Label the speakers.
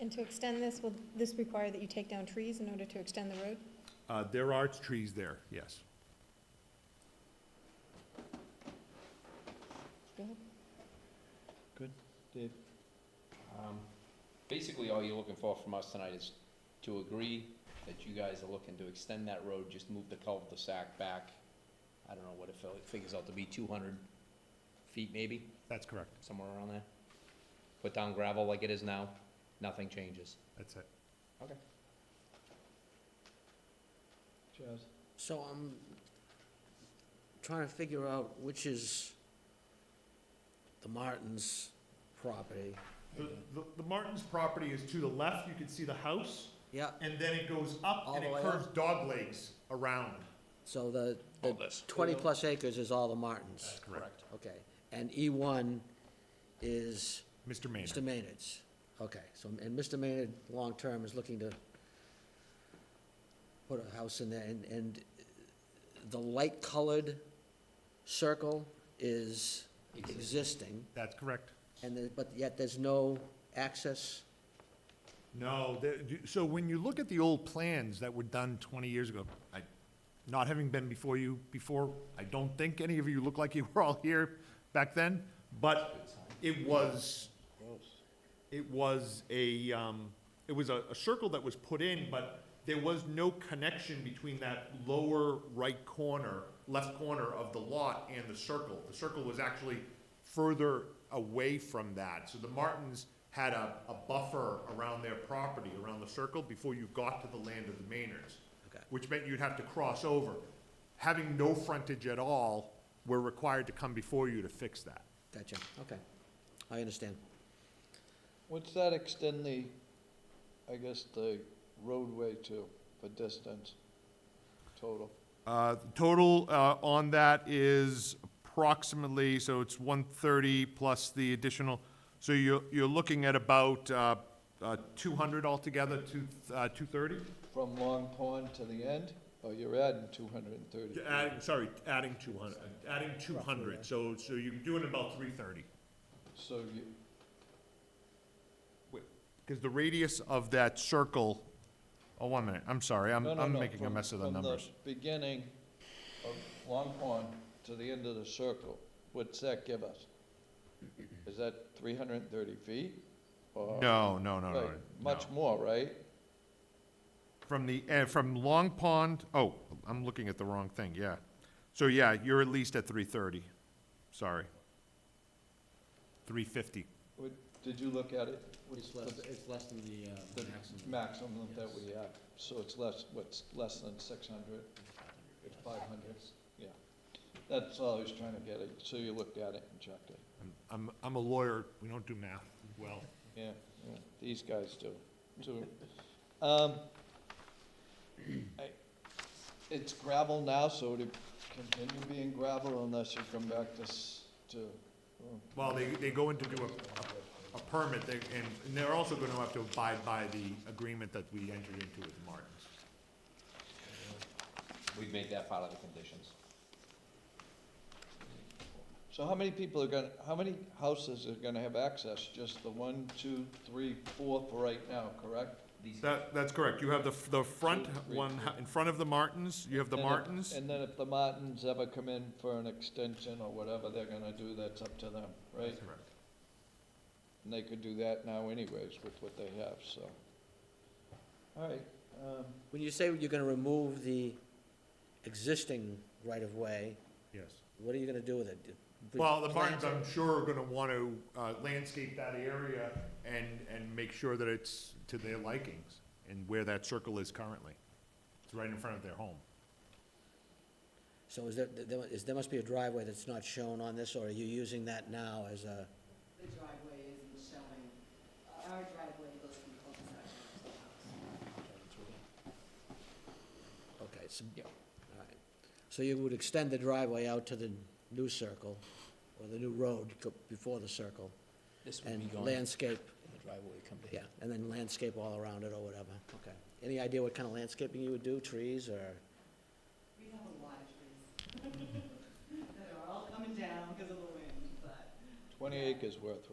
Speaker 1: And to extend this, will this require that you take down trees in order to extend the road?
Speaker 2: Uh, There are trees there, yes.
Speaker 1: Go ahead.
Speaker 3: Dave?
Speaker 4: Um, Basically, all you're looking for from us tonight is to agree that you guys are looking to extend that road, just move the cul-de-sac back. I don't know what it fil- it figures out to be, two hundred feet maybe,
Speaker 2: That's correct.
Speaker 4: somewhere around there. Put down gravel like it is now, nothing changes.
Speaker 2: That's it.
Speaker 3: Chaz?
Speaker 5: So I'm trying to figure out which is the Martins' property.
Speaker 2: The Martins property is to the left. You can see the house.
Speaker 5: Yeah,
Speaker 2: And then it goes up
Speaker 5: All
Speaker 2: and
Speaker 5: the
Speaker 2: it
Speaker 5: way
Speaker 2: curves dog legs around.
Speaker 5: so the, the
Speaker 4: All this.
Speaker 5: twenty-plus acres is all the Martins,
Speaker 2: Correct.
Speaker 5: okay. And E one is
Speaker 2: Mr. Maynard.
Speaker 5: Mr. Maynard's, okay. So, and Mr. Maynard, long-term, is looking to put a house in there, and, and the light-colored circle is existing.
Speaker 2: That's correct.
Speaker 5: And the, but yet there's no access,
Speaker 2: No, the- you- so when you look at the old plans that were done 20 years ago, I, not having been before you before, I don't think any of you look like you were all here back then, but it was, it was a, um, it was a a circle that was put in, but there was no connection between that lower right corner, left corner of the lot and the circle. The circle was actually further away from that. So the Martins had a, a buffer around their property, around the circle, before you got to the land of the Maynards.
Speaker 5: Okay.
Speaker 2: Which meant you'd have to cross over. Having no frontage at all, we're required to come before you to fix that.
Speaker 5: gotcha, okay, I understand.
Speaker 3: What's that extend the, I guess, the roadway to, the distance total?
Speaker 2: Uh, the Total uh, on that is approximately, so it's 130 plus the additional, so you're, you're looking at about uh, uh, 200 altogether, two- uh, 230?
Speaker 3: From Long Pond to the end? Oh, you're adding two hundred and thirty.
Speaker 2: Adding, sorry, adding 200, adding 200, so, so you're doing about 330.
Speaker 3: So you,
Speaker 2: Because the radius of that circle, oh, one minute, I'm sorry, I'm,
Speaker 3: no, no,
Speaker 2: I'm
Speaker 3: no,
Speaker 2: making a
Speaker 3: from-
Speaker 2: mess of the numbers.
Speaker 3: From the beginning of Long Pond to the end of the circle, what's that give us? Is that three hundred and thirty feet? Or-
Speaker 2: No, no, no, no,
Speaker 3: Right,
Speaker 2: no.
Speaker 3: Much more, right?
Speaker 2: From the, eh, from Long Pond, oh, I'm looking at the wrong thing, yeah. So, yeah, you're at least at three thirty, sorry. Three fifty.
Speaker 3: What- Did you look at it?
Speaker 6: It's less, it's less than the, uh,
Speaker 3: The
Speaker 6: maximum.
Speaker 3: maximum that we have, so it's less, what's, less than six hundred, it's five hundred, yeah. That's all I was trying to get at, so you looked at it and checked it,
Speaker 2: I'm- I'm, I'm a lawyer, we don't do math well.
Speaker 3: yeah, yeah, these guys do, too. Um, I- It's gravel now, so it'll continue being gravel unless you come back to, s- to, um,
Speaker 2: Well, they, they go in to do a, a permit, they, and, and they're also gonna have to abide by the agreement that we entered into with the Martins.
Speaker 4: We've made that part of the conditions.
Speaker 3: so how many people are gonna, how many houses are gonna have access? Just the one, two, three, four for right now, correct?
Speaker 4: These-
Speaker 2: That, that's correct, you have the, the front
Speaker 3: Two, three,
Speaker 2: one,
Speaker 3: two.
Speaker 2: in front of the Martins, you have the
Speaker 3: And if-
Speaker 2: Martins.
Speaker 3: And then if the Martins ever come in for an extension or whatever they're gonna do, that's up to them, right?
Speaker 2: Correct.
Speaker 3: And they could do that now anyways with what they have, so. All right, um,
Speaker 5: When you say you're gonna remove the existing right-of-way,
Speaker 2: Yes.
Speaker 5: what are you gonna do with it?
Speaker 2: Well, the
Speaker 5: Plant
Speaker 2: Martins, I'm sure, are gonna wanna uh, landscape that area and, and make sure that it's to their likings and where that circle is currently. It's right in front of their home.
Speaker 5: it? So is there, there is, there must be a driveway that's not shown on this, or are you using that now as a,
Speaker 7: the driveway isn't showing, Uh, our driveway goes from cul-de-sac to the house.
Speaker 5: okay, so.
Speaker 4: Yeah.
Speaker 5: all right. So you would extend the driveway out to the new circle, or the new road co- before the circle,
Speaker 6: This would be
Speaker 5: and
Speaker 6: gone, and
Speaker 5: landscape,
Speaker 6: the driveway would come to
Speaker 5: yeah,
Speaker 6: here.
Speaker 5: and then landscape all around it or whatever, okay. Any idea what kind of landscaping you would do, trees or?
Speaker 7: We have a lot of trees that are all coming down because of the wind, but
Speaker 3: twenty acres worth,